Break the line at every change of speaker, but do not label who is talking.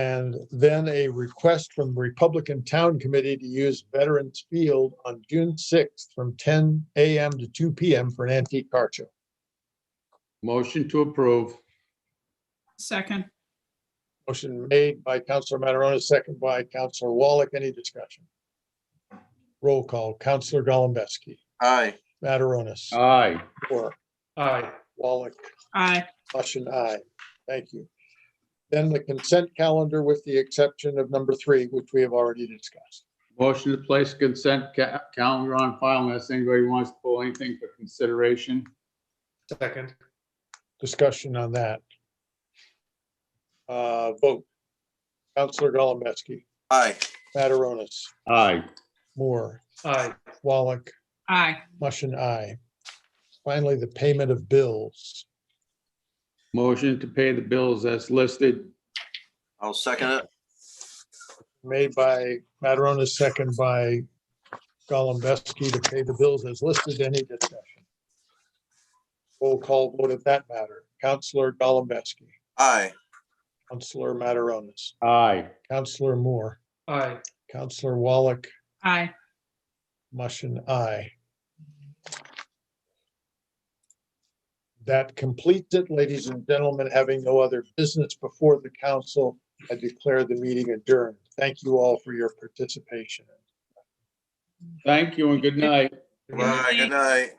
And then a request from Republican Town Committee to use Veterans Field on June sixth from ten AM to two PM for an antique car show.
Motion to approve.
Second,
Motion made by Counselor Mataronis, second by Counselor Wallach. Any discussion? Roll call, Counselor Golembeski,
aye,
Mataronis,
Aye.
Quirk,
Aye.
Wallach,
aye.
Hush and I. Thank you. Then the consent calendar with the exception of number three, which we have already discussed.
Motion to place consent ca- calendar on file unless anybody wants to pull anything for consideration.
Second,
Discussion on that. Uh, vote. Counselor Golembeski,
aye,
Mataronis,
Aye.
Moore,
aye,
Wallach,
Aye.
Hush and I. Finally, the payment of bills.
Motion to pay the bills as listed.
I'll second it,
made by Mataronis, second by Golembeski to pay the bills as listed. Any discussion? Roll call vote of that matter. Counselor Golembeski,
aye,
Counselor Mataronis,
Aye.
Counselor Moore,
aye,
Counselor Wallach,
Aye.
Mushin, aye. That completes it, ladies and gentlemen. Having no other business before the council, I declare the meeting adjourned. Thank you all for your participation.
Thank you and good night.
aye, good night.